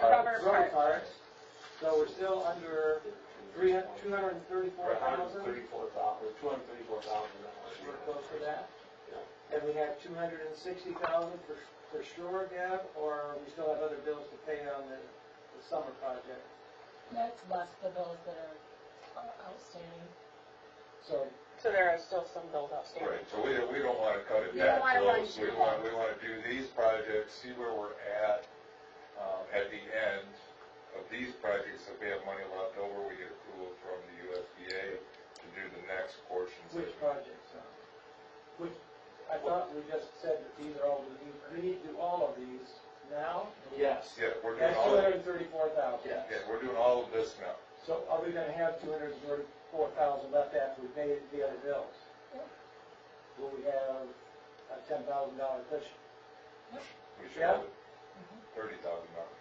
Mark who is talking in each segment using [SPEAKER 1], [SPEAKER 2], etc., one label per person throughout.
[SPEAKER 1] cover
[SPEAKER 2] Road
[SPEAKER 1] park.
[SPEAKER 2] parks, so we're still under three hun, two hundred and thirty-four thousand,
[SPEAKER 3] thirty-four thousand, two hundred thirty-four thousand dollars.
[SPEAKER 2] we're close to that. And we have two hundred and sixty thousand for, for sure, Deb, or we still have other bills to pay on the, the summer project?
[SPEAKER 4] That's less the bills that are are outstanding.
[SPEAKER 2] So,
[SPEAKER 1] So there are still some bills outstanding.
[SPEAKER 5] Right, so we, we don't wanna cut it
[SPEAKER 1] You don't
[SPEAKER 5] that
[SPEAKER 1] wanna run
[SPEAKER 5] close, we
[SPEAKER 1] too
[SPEAKER 5] want,
[SPEAKER 1] long.
[SPEAKER 5] we wanna do these projects, see where we're at, um, at the end of these projects, if we have money left over, we get approval from the USDA to do the next portions.
[SPEAKER 2] which projects, uh, which, I thought we just said that these are all, we need, we need to do all of these now?
[SPEAKER 3] Yes.
[SPEAKER 5] Yeah, we're
[SPEAKER 2] That's
[SPEAKER 5] doing
[SPEAKER 2] two
[SPEAKER 5] all,
[SPEAKER 2] hundred
[SPEAKER 5] of-
[SPEAKER 2] and thirty-four thousand.
[SPEAKER 3] Yeah.
[SPEAKER 5] yeah, we're doing all of this now.
[SPEAKER 2] So are we gonna have two hundred and thirty-four thousand left after we pay the other bills?
[SPEAKER 4] Yeah.
[SPEAKER 2] Will we have a ten thousand dollar cushion?
[SPEAKER 5] We should
[SPEAKER 2] Yeah.
[SPEAKER 5] have thirty thousand dollars.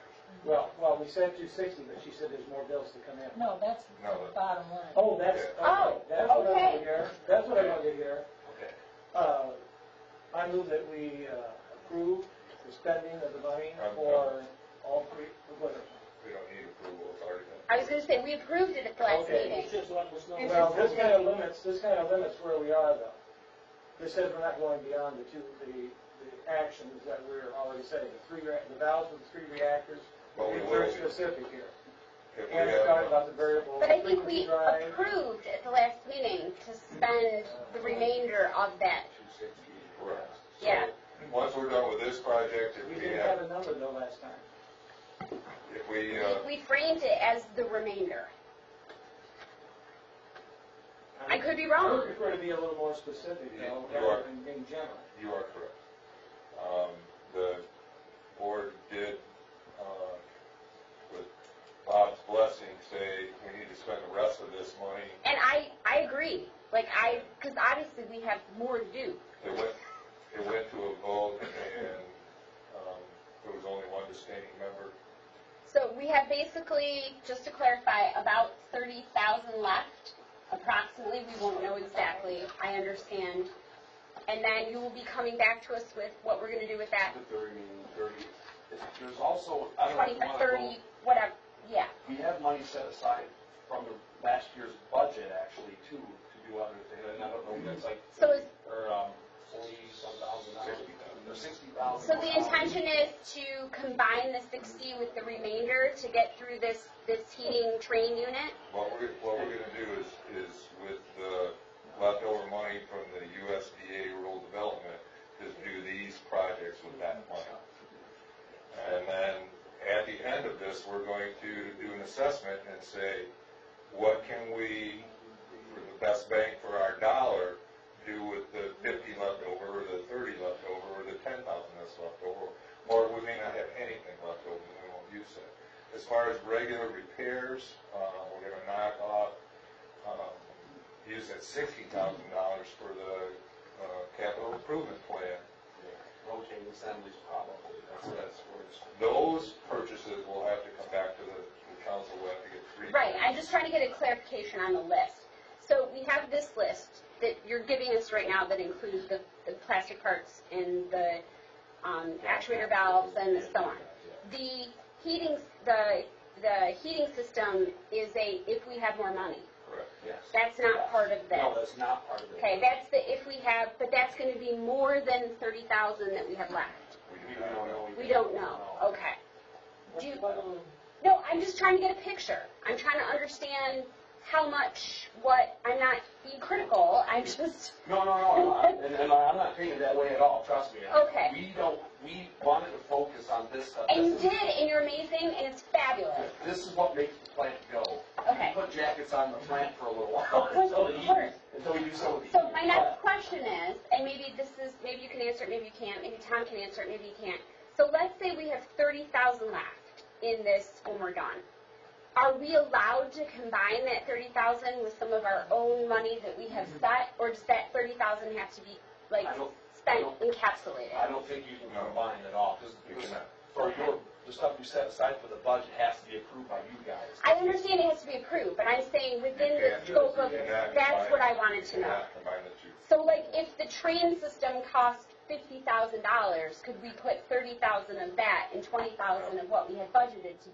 [SPEAKER 2] Well, well, we said two sixty, but she said there's more bills to come in.
[SPEAKER 4] No, that's
[SPEAKER 5] No.
[SPEAKER 4] the bottom line.
[SPEAKER 2] Oh, that's, okay.
[SPEAKER 1] Oh,
[SPEAKER 2] That's what I
[SPEAKER 1] okay.
[SPEAKER 2] wanted to hear. That's what I wanted to hear.
[SPEAKER 3] Okay.
[SPEAKER 2] Uh, I move that we uh, approve the spending of the money
[SPEAKER 5] Um,
[SPEAKER 2] for all three, for what?
[SPEAKER 5] We don't need approval, it's already been.
[SPEAKER 6] I was gonna say, we approved it at the last
[SPEAKER 2] Okay.
[SPEAKER 6] meeting.
[SPEAKER 2] Well, this kind of limits, this kind of limits where we are though. This says we're not going beyond the two, the, the actions that we're already setting, the three, rea- the valves with the three reactors.
[SPEAKER 5] But we
[SPEAKER 2] We're
[SPEAKER 5] will,
[SPEAKER 2] Very
[SPEAKER 5] if
[SPEAKER 2] specific here.
[SPEAKER 5] we
[SPEAKER 2] And we're talking
[SPEAKER 5] have,
[SPEAKER 2] about the variable
[SPEAKER 6] But I think
[SPEAKER 2] frequency
[SPEAKER 6] we
[SPEAKER 2] drive.
[SPEAKER 6] approved at the last meeting to spend the remainder of that.
[SPEAKER 3] Two sixty.
[SPEAKER 5] correct. So,
[SPEAKER 6] Yeah.
[SPEAKER 5] Once we're done with this project,
[SPEAKER 2] We
[SPEAKER 5] if we
[SPEAKER 2] didn't
[SPEAKER 5] have,
[SPEAKER 2] have a number though last time.
[SPEAKER 5] if we, uh,
[SPEAKER 6] We we framed it as the remainder. I could be
[SPEAKER 2] I would
[SPEAKER 6] wrong.
[SPEAKER 2] prefer to be a little more specific though,
[SPEAKER 5] You are.
[SPEAKER 2] rather than being general.
[SPEAKER 5] You are correct. Um, the board did, uh, with Bob's blessing, say we need to spend the rest of this money.
[SPEAKER 6] And I, I agree. Like, I, because obviously we have more to do.
[SPEAKER 5] It went, it went to a vote and, um, there was only one dissenting member.
[SPEAKER 6] So we have basically, just to clarify, about thirty thousand left, approximately, we won't know exactly, I understand. And then you will be coming back to us with what we're gonna do with that,
[SPEAKER 3] The thirty, thirty. There's also, I don't know if
[SPEAKER 6] twenty,
[SPEAKER 3] you want to go.
[SPEAKER 6] thirty, whatever, yeah.
[SPEAKER 3] We have money set aside from the last year's budget actually too, to do other things. And I don't know, that's like,
[SPEAKER 6] So is,
[SPEAKER 3] or, um, forty-some thousand dollars. Or sixty thousand.
[SPEAKER 6] so the intention is to combine the sixty with the remainder to get through this, this heating train unit?
[SPEAKER 5] What we're, what we're gonna do is, is with the leftover money from the USDA rural development, is do these projects with that money. And then, at the end of this, we're going to do an assessment and say, what can we, for the best bang for our dollar, do with the fifty left over, or the thirty left over, or the ten thousand that's left over? Or we may not have anything left over, and we won't use it. As far as regular repairs, uh, we're gonna knock off, um, use that sixty thousand dollars for the, uh, capital improvement plan.
[SPEAKER 3] Rotating assemblies probably, that's, that's where it's.
[SPEAKER 5] Those purchases will have to come back to the, the council, we'll have to get three.
[SPEAKER 6] Right, I'm just trying to get a clarification on the list. So we have this list that you're giving us right now that includes the, the plastic parts and the, um, actuator valves and so on. The heating, the, the heating system is a if we have more money.
[SPEAKER 5] Correct.
[SPEAKER 3] Yes.
[SPEAKER 6] That's not part of
[SPEAKER 3] No,
[SPEAKER 6] this.
[SPEAKER 3] that's not part of it.
[SPEAKER 6] Okay, that's the if we have, but that's gonna be more than thirty thousand that we have left.
[SPEAKER 5] We
[SPEAKER 3] We
[SPEAKER 5] do
[SPEAKER 3] don't
[SPEAKER 5] not know.
[SPEAKER 3] know.
[SPEAKER 6] We don't know, okay.
[SPEAKER 2] What's
[SPEAKER 6] Do-
[SPEAKER 2] the bottom-
[SPEAKER 6] No, I'm just trying to get a picture. I'm trying to understand how much, what, I'm not being critical, I'm just,
[SPEAKER 3] No, no, no, I'm not. and, and I'm not taking it that way at all, trust me.
[SPEAKER 6] Okay.
[SPEAKER 3] We don't, we wanted to focus on this stuff.
[SPEAKER 6] and you
[SPEAKER 3] This is-
[SPEAKER 6] did, and you're amazing, and it's fabulous.
[SPEAKER 3] This is what makes the plant go.
[SPEAKER 6] Okay.
[SPEAKER 3] We put jackets on the plant for a little while, until the
[SPEAKER 6] Of course.
[SPEAKER 3] heat, until we do some of the heat.
[SPEAKER 6] Oh, So my next question is, and maybe this is, maybe you can answer it, maybe you can't, maybe Tom can answer it, maybe you can't. So let's say we have thirty thousand left in this when we're done. Are we allowed to combine that thirty thousand with some of our own money that we have set, or does that thirty thousand have to be, like,
[SPEAKER 3] I don't- I
[SPEAKER 6] spent
[SPEAKER 3] don't-
[SPEAKER 6] encapsulated?
[SPEAKER 3] I don't think you can combine it all, because
[SPEAKER 5] You cannot.
[SPEAKER 3] for your, the stuff you set aside for the budget has to be approved by you guys.
[SPEAKER 6] I understand it has to be approved, but I'm saying within the scope of, that's what I wanted to know.
[SPEAKER 5] Not combine the two.
[SPEAKER 6] So like, if the train system cost fifty thousand dollars, could we put thirty thousand of that and twenty thousand of what we had budgeted to